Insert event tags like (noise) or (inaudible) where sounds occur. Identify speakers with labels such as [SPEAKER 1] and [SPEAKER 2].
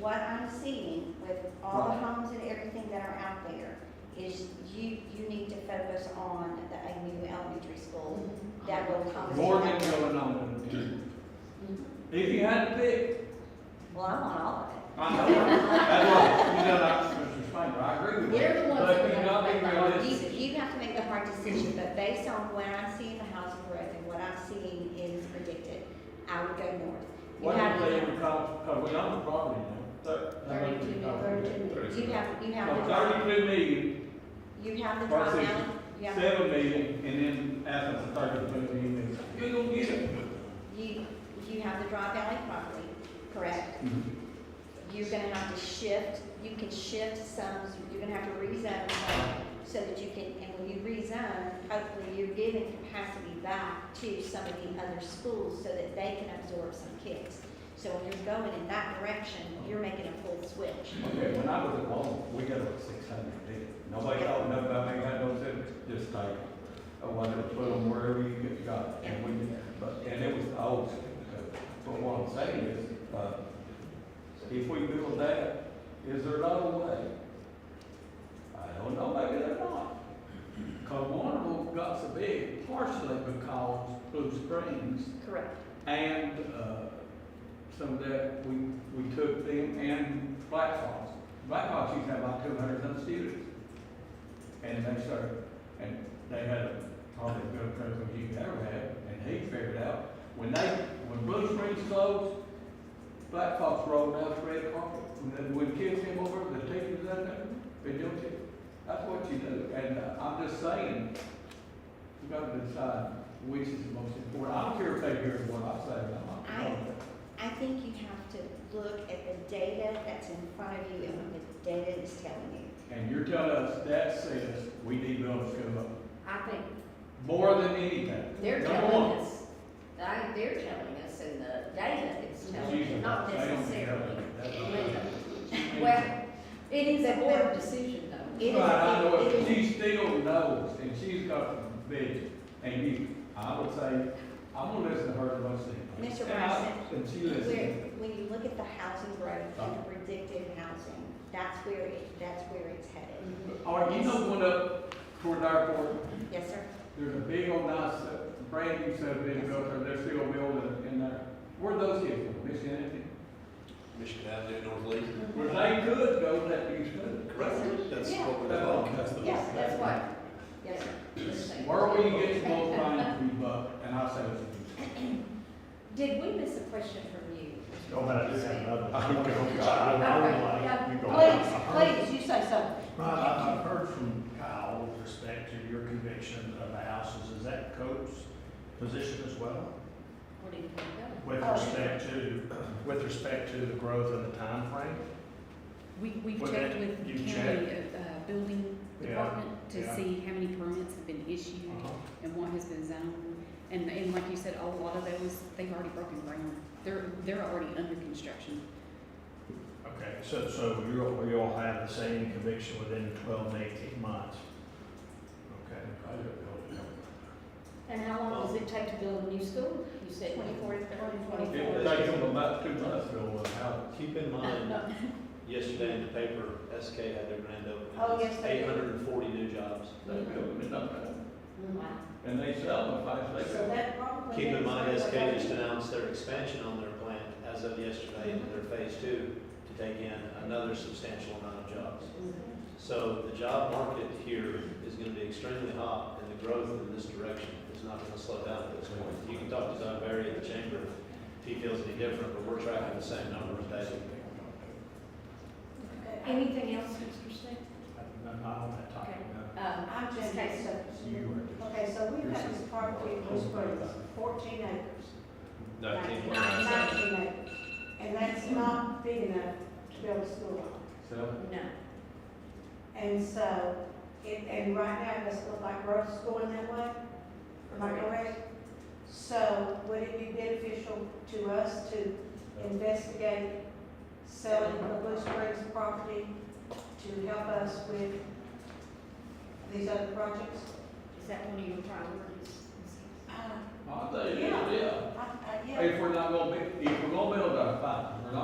[SPEAKER 1] what I'm seeing with all the
[SPEAKER 2] Right.
[SPEAKER 1] homes and everything that are out there is you, you need to focus on the AMU Elementary School that will accommodate.
[SPEAKER 2] More than going on. If you had to pick,
[SPEAKER 1] Well, I want all of it.
[SPEAKER 2] I
[SPEAKER 3] (laughs)
[SPEAKER 2] know, that's what, you know, that's Mr. Spangle, I agree with you.
[SPEAKER 3] They're the ones
[SPEAKER 2] But
[SPEAKER 3] that
[SPEAKER 2] you
[SPEAKER 3] have
[SPEAKER 2] not
[SPEAKER 3] to
[SPEAKER 2] being
[SPEAKER 3] make the hard
[SPEAKER 2] realistic.
[SPEAKER 1] You, you have to make the hard decision, but based on what I see in the housing growth and what I'm seeing is predicted, I would go north. You
[SPEAKER 2] What
[SPEAKER 1] have,
[SPEAKER 2] if they
[SPEAKER 1] to-
[SPEAKER 2] would cost, cause we own uh, the property now, thir- how much
[SPEAKER 3] Thirty-two,
[SPEAKER 2] we
[SPEAKER 3] mil-
[SPEAKER 2] cost?
[SPEAKER 3] thirty-two. mil.
[SPEAKER 1] you have, you have,
[SPEAKER 2] So
[SPEAKER 1] the-
[SPEAKER 2] Thirty-two million,
[SPEAKER 1] you have the
[SPEAKER 2] Or
[SPEAKER 1] drop
[SPEAKER 2] six.
[SPEAKER 1] down, you have,
[SPEAKER 2] seven million, and then after the thirty-two million, you're gonna get it.
[SPEAKER 1] you, you have the drop alley property, correct?
[SPEAKER 3] Mm-hmm.
[SPEAKER 1] you're gonna have to shift, you can shift some, you're gonna have to rezone some, so that you can, and when you rezone, hopefully you're giving capacity back to some of the other schools so that they can absorb some kids. So when you're going in that direction, you're making a full switch.
[SPEAKER 2] Okay, when I was at Walmart, we got like six hundred deals. Nobody told nothing about me, I don't say, just take it. I wanted to put them wherever you could go. And we, but, and it was the old school. code. But what I'm saying is, uh, if we build that, is there another way? I don't know, maybe there not. Cause one of them got so big partially because Blue Springs
[SPEAKER 1] Correct.
[SPEAKER 2] and, uh, some of that, we, we took them and Black Hawks. Black Hawks used to have about two hundred some students. And they started, and they had a, probably the best program you've ever had, and he figured out, when they, when Blue Springs closed, Black Hawks rolled out the red carpet, and then when kids came over, the teachers out there, they don't take, that's what you do, and uh, I'm just saying, you gotta decide which is the most important, I don't care if they hear what I say, I'm
[SPEAKER 1] I-
[SPEAKER 2] not.
[SPEAKER 1] I think you have to look at the data that's in front of you and what the data is telling you.
[SPEAKER 2] And you're telling us that says we need buildings to go up
[SPEAKER 3] I think
[SPEAKER 2] more than anything.
[SPEAKER 3] they're
[SPEAKER 2] Number
[SPEAKER 3] telling
[SPEAKER 2] one.
[SPEAKER 3] us, I, they're telling us in the data is telling,
[SPEAKER 2] Jesus,
[SPEAKER 3] us, not
[SPEAKER 2] they don't care.
[SPEAKER 3] necessarily.
[SPEAKER 2] That's
[SPEAKER 3] Well, Well, it is a board decision though.
[SPEAKER 1] It is-
[SPEAKER 2] Right, I know,
[SPEAKER 1] it
[SPEAKER 2] it.
[SPEAKER 1] is-
[SPEAKER 2] she still knows, and she's got the vision, and you, I would say, I'm gonna listen to her the most. of the time.
[SPEAKER 1] Mr.
[SPEAKER 2] And I-
[SPEAKER 1] Bryson,
[SPEAKER 2] And she
[SPEAKER 1] Where,
[SPEAKER 2] listens.
[SPEAKER 1] when you look at the housing growth and the predicted housing, that's where, it- that's where it's headed.
[SPEAKER 2] All right, you know, one up toward the airport,
[SPEAKER 1] Yes, sir?
[SPEAKER 2] there's a big old nice, uh, brand new subdivision built there, they're still building in there. Where are those kids from, Miss Kennedy?
[SPEAKER 4] Michigan Avenue, North Lee.
[SPEAKER 2] Where they could go, that you should.
[SPEAKER 4] Correct. That's
[SPEAKER 3] Yeah.
[SPEAKER 4] what we're talking about.
[SPEAKER 1] Yeah.
[SPEAKER 3] That's what, yes, sir.
[SPEAKER 2] Where will you get the most bang for your buck? And I say, it's-
[SPEAKER 3] Did we miss a question from you?
[SPEAKER 5] Go ahead, I just have another. I'm gonna go.
[SPEAKER 3] Okay,
[SPEAKER 5] I
[SPEAKER 3] yeah,
[SPEAKER 5] don't like- you go.
[SPEAKER 3] Please, please, you say something.
[SPEAKER 5] Ron, I- I've heard from Kyle with respect to your conviction of the houses. Is that Coates' position as well?
[SPEAKER 3] Where did you go?
[SPEAKER 5] With respect to, with respect to the growth and the time frame.
[SPEAKER 6] We, we've
[SPEAKER 5] Well,
[SPEAKER 6] checked
[SPEAKER 5] that-
[SPEAKER 6] with
[SPEAKER 5] you
[SPEAKER 6] the county, uh, uh, building
[SPEAKER 5] Yeah,
[SPEAKER 6] department
[SPEAKER 5] yeah. Uh-huh.
[SPEAKER 6] to see how many permits have been issued and what has been zoned. And, and like you said, a lot of those, they've already broken ground. They're, they're already under construction.
[SPEAKER 5] Okay, so, so you're, we all have the same conviction within twelve to eighteen months? Okay.
[SPEAKER 3] And how long does it take to build a new school? You said
[SPEAKER 1] Twenty-four to thirty.
[SPEAKER 3] Twenty-four.
[SPEAKER 2] it would take them about two months to build one house.
[SPEAKER 4] Keep in mind,
[SPEAKER 7] (laughs)
[SPEAKER 4] yesterday in the paper, SK had their grand opening.
[SPEAKER 1] Oh, yes, they did.
[SPEAKER 4] Eight hundred and forty new jobs.
[SPEAKER 2] They build it up there,
[SPEAKER 3] Wow.
[SPEAKER 2] and they sell them if I say
[SPEAKER 3] So
[SPEAKER 2] that.
[SPEAKER 3] that probably.
[SPEAKER 4] Keep in
[SPEAKER 3] is
[SPEAKER 4] mind,
[SPEAKER 3] what
[SPEAKER 4] SK
[SPEAKER 3] they
[SPEAKER 4] just
[SPEAKER 3] need.
[SPEAKER 4] announced their expansion on their plant as of yesterday into their phase two to take in another substantial
[SPEAKER 5] uh,
[SPEAKER 4] amount of jobs. So the job market here is gonna be extremely hot, and the growth in this direction is not gonna slow down at this point. You can talk to Don Barry at the chamber, if he feels any different, but we're tracking the same numbers daily.
[SPEAKER 3] Anything else, Mr. Smith?
[SPEAKER 5] Not on that topic, no.
[SPEAKER 3] Um,
[SPEAKER 7] I'm just,
[SPEAKER 3] Okay.
[SPEAKER 7] so, okay, so we've got this property in Blue Springs, fourteen acres.
[SPEAKER 4] Nineteen point nine seven.
[SPEAKER 7] Nineteen acres, and that's not big enough to build a school on.
[SPEAKER 2] So,
[SPEAKER 3] no.
[SPEAKER 7] And so, it, and right now, it doesn't look like roads going that way, am I correct? So would it be beneficial to us to investigate selling the Blue Springs property to help us with these other projects?
[SPEAKER 3] Is that one of your priorities?
[SPEAKER 7] Uh,
[SPEAKER 2] I tell you, yeah,
[SPEAKER 7] I, I, yeah.
[SPEAKER 2] if we're not gonna be, if we're gonna build our five, we're not